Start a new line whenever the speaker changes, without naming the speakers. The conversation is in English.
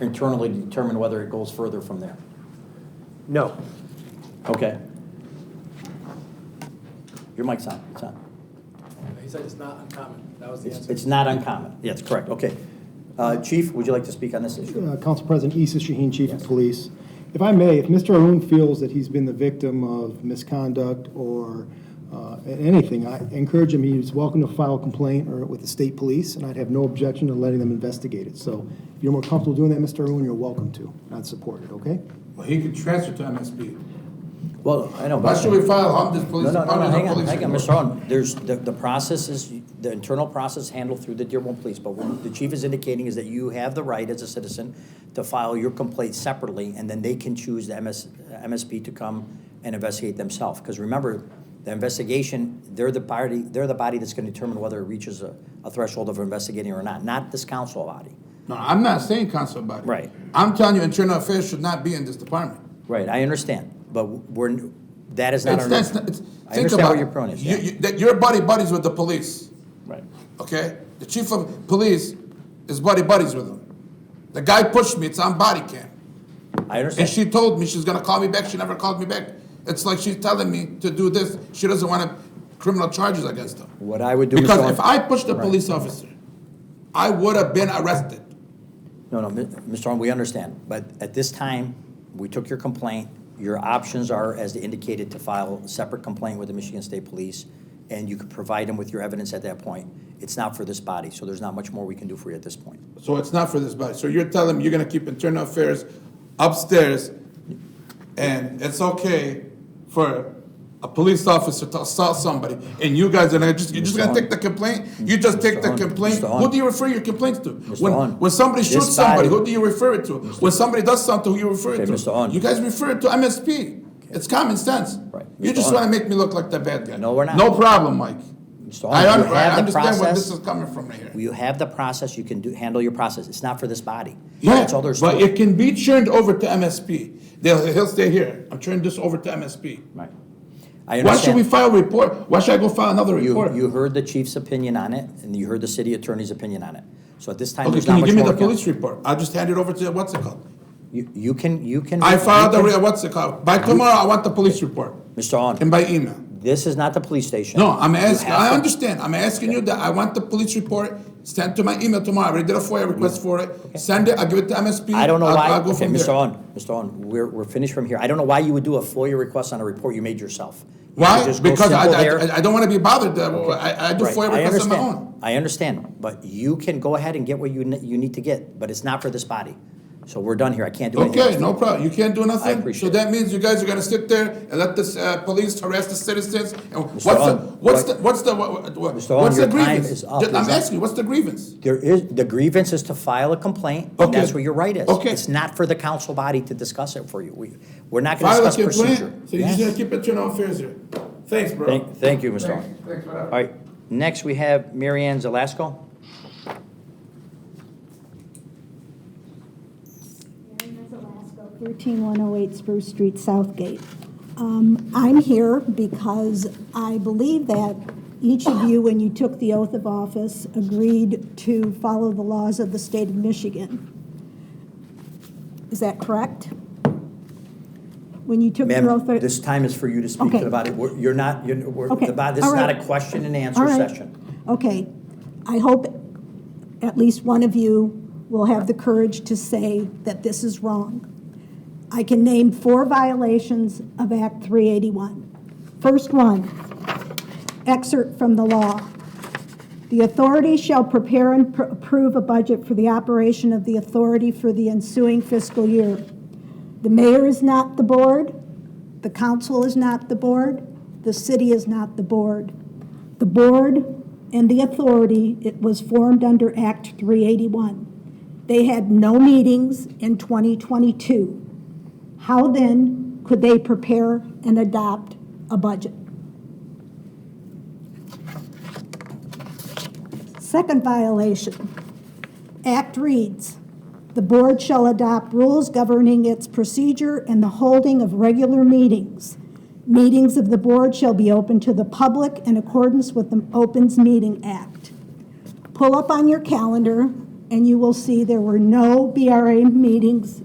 internally to determine whether it goes further from there?
No.
Okay. Your mic's on, it's on.
He said it's not uncommon. That was the
It's
answer.
it's not uncommon, yes, correct, okay. Uh, Chief, would you like to speak on this issue?
Uh, Council President Issa Shaheen, Chief of Police. If I may, if Mr. Arun feels that he's been the victim of misconduct or uh, anything, I encourage him, he's welcome to file a complaint or with the state police, and I'd have no objection to letting them investigate it. So if you're more comfortable doing that, Mr. Arun, you're welcome to. I'd support it, okay?
Well, he could transfer to MSP.
Well, I know.
Why should we file Humda's
No,
Police
no, no, no,
Department
hang
or
on,
Police
hang on,
Department?
Mr. Owen. There's, the, the process is, the internal process handled through the Dearborn Police, but what the chief is indicating is that you have the right as a citizen to file your complaint separately, and then they can choose the MS, MSP to come and investigate themselves. Because remember, the investigation, they're the party, they're the body that's gonna determine whether it reaches a, a threshold of investigating or not, not this council body.
No, I'm not saying council body.
Right.
I'm telling you, internal affairs should not be in this department.
Right, I understand, but we're, that is not
It's,
our.
that's, not- it's,
I
think
understand
about
where your
it.
prone is,
You-
yeah.
you- That you're buddy buddies with the police,
Right.
okay? The chief of police is buddy buddies with him. The guy pushed me, it's on body
I
cam. And
understand,
she told me she's gonna call me back, she never called me back. It's like she's telling me to do this, she doesn't want criminal charges against him.
what I would do. Mr.
Because
Owen-
if I pushed a
Right.
police officer, I would have been arrested.
No, no, Mi- Mr. Arnold, we understand, but at this time, we took your complaint. Your options are, as indicated, to file a separate complaint with the Michigan State Police, and you could provide them with your evidence at that point. It's not for this body, so there's not much more we can do for you at this point.
So it's not for this body. So you're telling me you're gonna keep internal affairs upstairs, and it's okay for a police officer to assault somebody, and you guys are gonna just, you're just gonna take the complaint? You just take the
Mr. Hahn,
complaint?
Mr. Hahn.
Who do you refer your complaints to?
Hahn,
When, when somebody
this
shoots somebody,
body-
who do you refer it to? When somebody does something, who you refer it
Okay,
to?
Mr. Hahn.
You guys refer it to MSP. It's common sense.
Right.
You
Mr.
just
Hahn.
wanna make me look like the bad guy.
No, we're not.
No problem, Mike.
Mr. Hahn,
I
you
un- I
have the
understand where
process.
this is coming from right here.
You have the process, you can do, handle your process. It's not for this body.
Yeah,
That's all there's to
but
it.
it can be turned over to MSP. They'll, he'll stay here. I'm turning this over to MSP.
Right. I
Why should we
understand.
file a report? Why should I go file another report?
You, you heard the chief's opinion on it, and you heard the city attorney's opinion on it. So at this time,
Okay,
there's not
can you
much
give me
more.
the
we can-
police report? I'll just hand it over to, what's it called?
You, you can, you can.
I
you
filed the,
can-
re- what's it called? By tomorrow, I want the police report
Mr. Hahn.
and by email.
This is not the police station.
No, I'm
You
asking,
have
I
to-
understand. I'm asking you that I want the police report sent to my email tomorrow. I already did a FOIA request for it. Send it, I'll give it to MSP.
I don't know
I'll-
why,
I'll go
okay,
from
Mr.
there.
On, Mr. On, we're, we're finished from here. I don't know why you would do a FOIA request on a report you made yourself. You
Why?
could just go
Because I,
simple there.
I, I don't want to be bothered. uh, I, I do
Right,
FOIA
I
requests on my own.
understand, I understand, but you can go ahead and get what you, ne- you need to get, but it's not for this body. So we're done here, I can't do anything.
Okay,
else.
no problem. You can't do nothing?
appreciate
So that means you guys are gonna sit there and let this, uh, police harass the citizens? And what's the,
Hahn,
what's the,
what-
what's the, what- what-
Mr. Hahn,
what's the
your time
grievance?
is up.
Ju-
Is
I'm
that-
asking you, what's the grievance?
There is, the grievance is to file a complaint, and
Okay.
that's what your right is.
Okay.
It's not for the council body to discuss it for you. We, we're not gonna
File a
discuss
complaint,
procedure.
so you just
Yes.
gonna keep it internal affairs here. Thanks, bro.
Thank, thank you, Mr.
Thanks,
On.
thanks for
All
that.
right, next we have Mary Ann Zelasco.
Mary Mazalasco, 13108 Spruce Street, Southgate. Um, I'm here because I believe that each of you, when you took the oath of office, agreed to follow the laws of the state of Michigan. Is that correct? When you took
Ma'am,
your oath? of-
this time is for you to speak to
Okay.
the body. We're- You're not, you're, we're-
Okay,
the body- this is
all
not
right.
a question and
All
answer
right.
session.
Okay. I hope at least one of you will have the courage to say that this is wrong. I can name four violations of Act 381. First one, excerpt from the law. The authority shall prepare and pr- approve a budget for the operation of the authority for the ensuing fiscal year. The mayor is not the board, the council is not the board, the city is not the board. The board and the authority, it was formed under Act 381. They had no meetings in 2022. How then could they prepare and adopt a budget? Second violation. Act reads, "The board shall adopt rules governing its procedure and the holding of regular meetings. Meetings of the board shall be open to the public in accordance with the Opens Meeting Act." Pull up on your calendar and you will see there were no BRA meetings